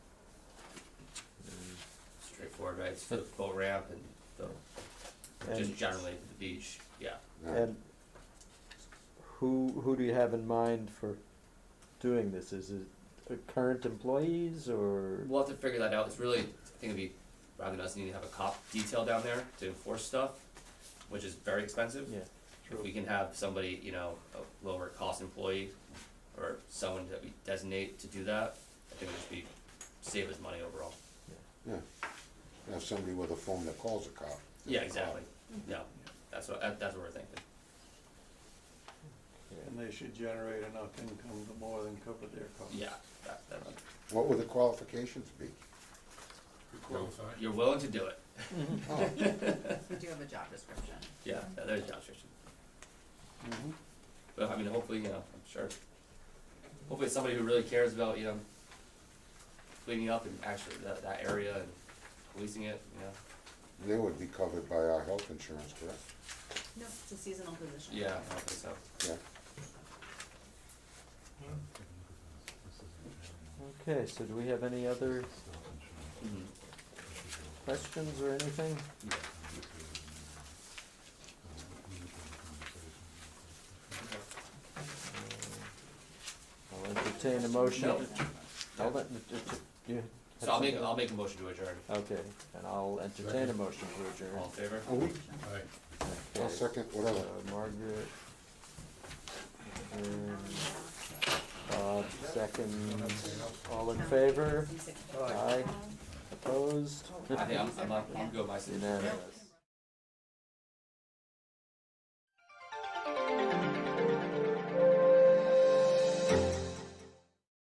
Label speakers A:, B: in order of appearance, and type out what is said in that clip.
A: board, right? It's for the boat ramp and the, just
B: And,
A: generally the beach, yeah.
B: and who, who do you have in mind for doing this? Is it uh, current employees or?
A: We'll have to figure that out. It's really, I think it'd be, rather than us needing to have a cop detail down there to enforce stuff, which is very expensive.
B: Yeah,
A: If we can have somebody, you know, a lower cost employee or someone that we designate to do that, I think it would just be, save us money overall.
C: Yeah, have somebody with a phone that calls a cop.
A: Yeah, exactly. No, that's what, that- that's what we're thinking.
B: yeah.
D: And they should generate enough income to more than cover their costs.
A: Yeah, that, that,
C: What would the qualifications be?
A: you're willing to do it.
C: Oh,
E: We do have a job description.
A: Yeah, yeah, there's job description.
D: Mhm.
A: But I mean, hopefully, you know, I'm sure. Hopefully, it's somebody who really cares about you know cleaning up and actually that, that area and policing it. You know.
C: They would be covered by our health insurance, correct?
E: No, it's a seasonal position.
A: Yeah, I don't think so.
C: Yeah,
B: Okay, so do we have any other
A: Mhm.
B: questions or anything?
A: Yeah.
B: I'll entertain a motion.
A: No.
B: I'll let- d- d- you had
A: So I'll make
B: something?
A: I'll make a motion to adjourn.
B: Okay, and I'll entertain a motion to adjourn.
A: All in favor?
C: I'll
B: Okay,
C: second, whatever.
B: so Margaret.
E: Um,
B: and Bob, second. All
E: um,
B: in favor?
E: six-
B: Aye. Opposed?
A: I think I'm I'm, not, I'm good with my
B: Unanimous.